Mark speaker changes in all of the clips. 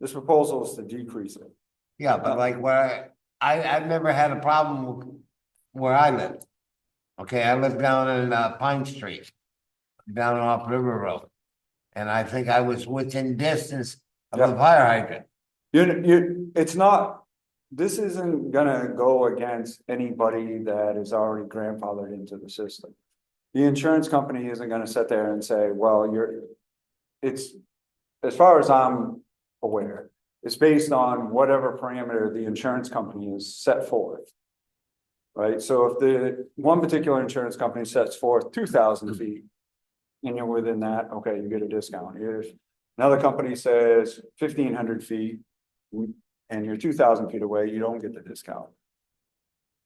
Speaker 1: This proposal is to decrease it.
Speaker 2: Yeah,
Speaker 1: Oh.
Speaker 2: but like where I, I, I've never had a problem where I live. Okay, I live down in uh, Pine Street, down off River Road. And I think I was within distance of the
Speaker 1: Yeah.
Speaker 2: fire hydrant.
Speaker 1: You, you, it's not, this isn't gonna go against anybody that is already grandfathered into the system. The insurance company isn't gonna sit there and say, well, you're, it's, as far as I'm aware, it's based on whatever parameter the insurance company is set forth. Right, so if the, one particular insurance company sets forth two thousand feet and you're within that, okay, you get a discount. If another company says fifteen hundred feet, and you're two thousand feet away, you don't get the discount.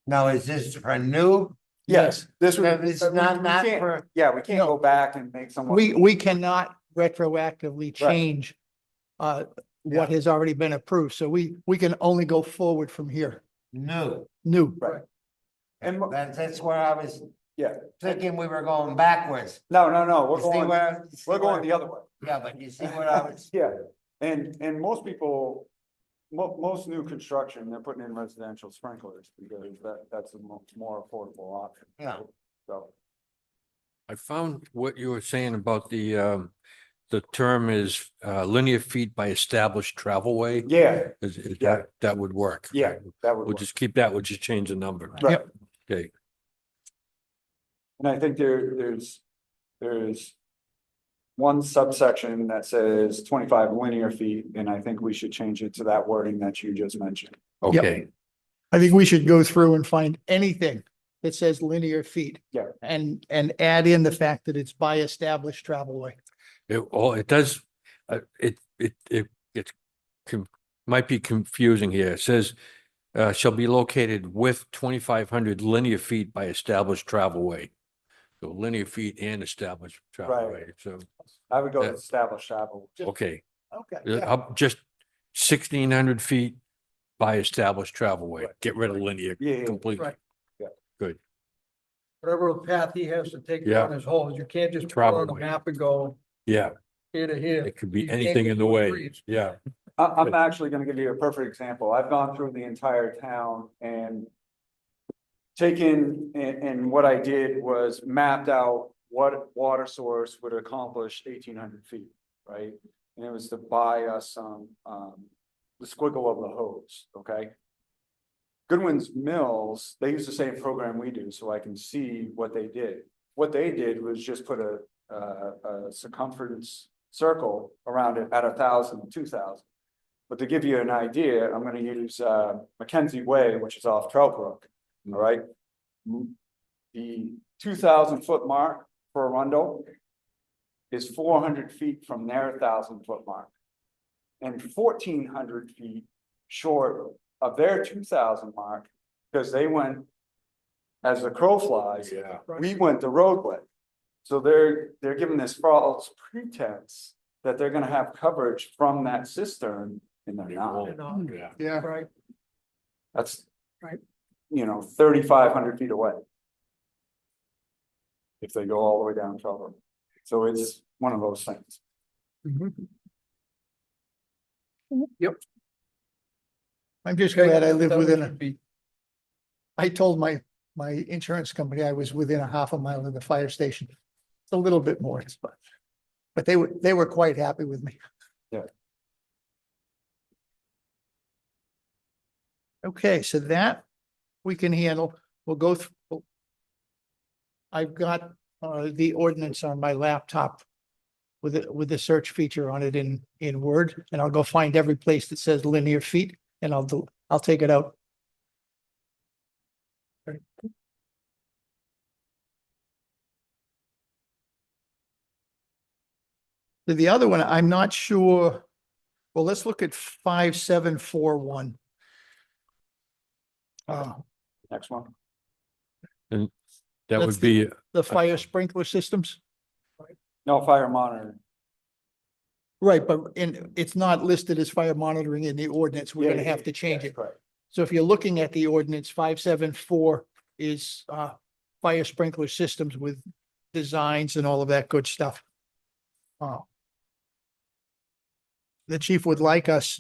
Speaker 2: Now, is this for new?
Speaker 1: Yes, this
Speaker 2: That
Speaker 1: would.
Speaker 2: is
Speaker 1: but we-
Speaker 2: not,
Speaker 1: we
Speaker 2: not
Speaker 1: can't-
Speaker 2: for,
Speaker 1: Yeah, we can't
Speaker 3: No.
Speaker 1: go back and make someone.
Speaker 3: We, we cannot retroactively change uh, what has already been approved. So we, we can only go forward from here.
Speaker 2: new.
Speaker 3: New.
Speaker 1: Right. And mo-
Speaker 2: That's, that's where I was.
Speaker 1: Yeah.
Speaker 2: Thinking we were going backwards.
Speaker 1: no, no, no,
Speaker 2: You
Speaker 1: we're
Speaker 2: see
Speaker 1: going,
Speaker 2: where- you see
Speaker 1: we're going
Speaker 2: where-
Speaker 1: the other way.
Speaker 2: Yeah, but you see what I was,
Speaker 1: Yeah, and, and most people, mo- most new construction, they're putting in residential sprinklers because that, that's the mo- more affordable option.
Speaker 2: yeah.
Speaker 1: So,
Speaker 4: I found what you were saying about the, um, the term is, uh, linear feet by established travel way.
Speaker 1: yeah,
Speaker 4: Is, is
Speaker 1: Yeah.
Speaker 4: that, that would work.
Speaker 1: Yeah, that would
Speaker 4: We'll
Speaker 1: work.
Speaker 4: just keep that, we'll just change the number.
Speaker 1: Right.
Speaker 4: Okay.
Speaker 1: And I think there, there's, there's. One subsection that says twenty-five linear feet, and I think we should change it to that wording that you just mentioned.
Speaker 4: Okay,
Speaker 3: I think we should go through and find anything that says linear feet.
Speaker 1: Yeah.
Speaker 3: And, and add in the fact that it's by established travel way.
Speaker 4: it, all it does, uh, it, it, it, it's con- might be confusing here. It says, uh, shall be located with twenty-five hundred linear feet by established travel way. So linear feet and established travel
Speaker 1: Right.
Speaker 4: way, so,
Speaker 1: I would go
Speaker 4: Yeah.
Speaker 1: with established travel.
Speaker 4: okay.
Speaker 3: Okay.
Speaker 4: Uh, Up just sixteen hundred feet by established travel way. Get rid of linear
Speaker 1: Yeah, yeah,
Speaker 4: completely.
Speaker 5: Right. whatever path he has to take
Speaker 4: Yeah.
Speaker 5: on his hole, you can't just put it on the
Speaker 4: Probably.
Speaker 5: map and go
Speaker 4: Yeah,
Speaker 5: here to here.
Speaker 4: it could be
Speaker 5: You can't
Speaker 4: anything
Speaker 5: get
Speaker 4: in the
Speaker 5: those
Speaker 4: way.
Speaker 5: streets.
Speaker 4: Yeah,
Speaker 1: I, I'm actually gonna give you a perfect example. I've gone through the entire town and. Taken, and, and what I did was mapped out what water source would accomplish eighteen hundred feet, right? And it was to buy us some, um, the squiggle of the hose, okay? Goodwin's Mills, they use the same program we do, so I can see what they did. What they did was just put a, a, a circumference circle around it at a thousand, two thousand. But to give you an idea, I'm gonna use, uh, Mackenzie Way, which is off Trout Brook, all right? M- The two thousand foot mark for Arundel is four hundred feet from their thousand foot mark. And fourteen hundred feet short of their two thousand mark, because they went as the crow flies,
Speaker 4: yeah.
Speaker 1: we went the roadway. So they're, they're giving this false pretense that they're gonna have coverage from that cistern and they're not.
Speaker 4: Yeah.
Speaker 3: Yeah.
Speaker 5: Right,
Speaker 1: That's.
Speaker 5: Right.
Speaker 1: You know, thirty-five hundred feet away. If they go all the way down Charter. So it's one of those things.
Speaker 3: I'm just
Speaker 5: Okay,
Speaker 3: glad I
Speaker 5: that
Speaker 3: live
Speaker 5: would
Speaker 3: within a,
Speaker 5: be-
Speaker 3: I told my, my insurance company I was within a half a mile of the fire station. It's a little bit more, but, but they were, they were quite happy with me.
Speaker 1: Yeah.
Speaker 3: Okay, so that we can handle. We'll go through. I've got, uh, the ordinance on my laptop with, the- with the search feature on it in, in Word, and I'll go find every place that says linear feet and I'll do, I'll take it out. The- The other one, I'm not sure. Well, let's look at five, seven, four, one. Uh,
Speaker 1: Next one.
Speaker 4: That
Speaker 3: That's
Speaker 4: would be,
Speaker 3: the fire sprinkler systems,
Speaker 1: No fire monitoring.
Speaker 3: right, but in, it's not listed as fire monitoring in the ordinance. We're
Speaker 1: Yeah,
Speaker 3: gonna
Speaker 1: yeah,
Speaker 3: have to change
Speaker 1: That's
Speaker 3: it.
Speaker 1: correct.
Speaker 3: So if you're looking at the ordinance, five, seven, four is, uh, fire sprinkler systems with designs and all of that good stuff. Oh. The chief would like us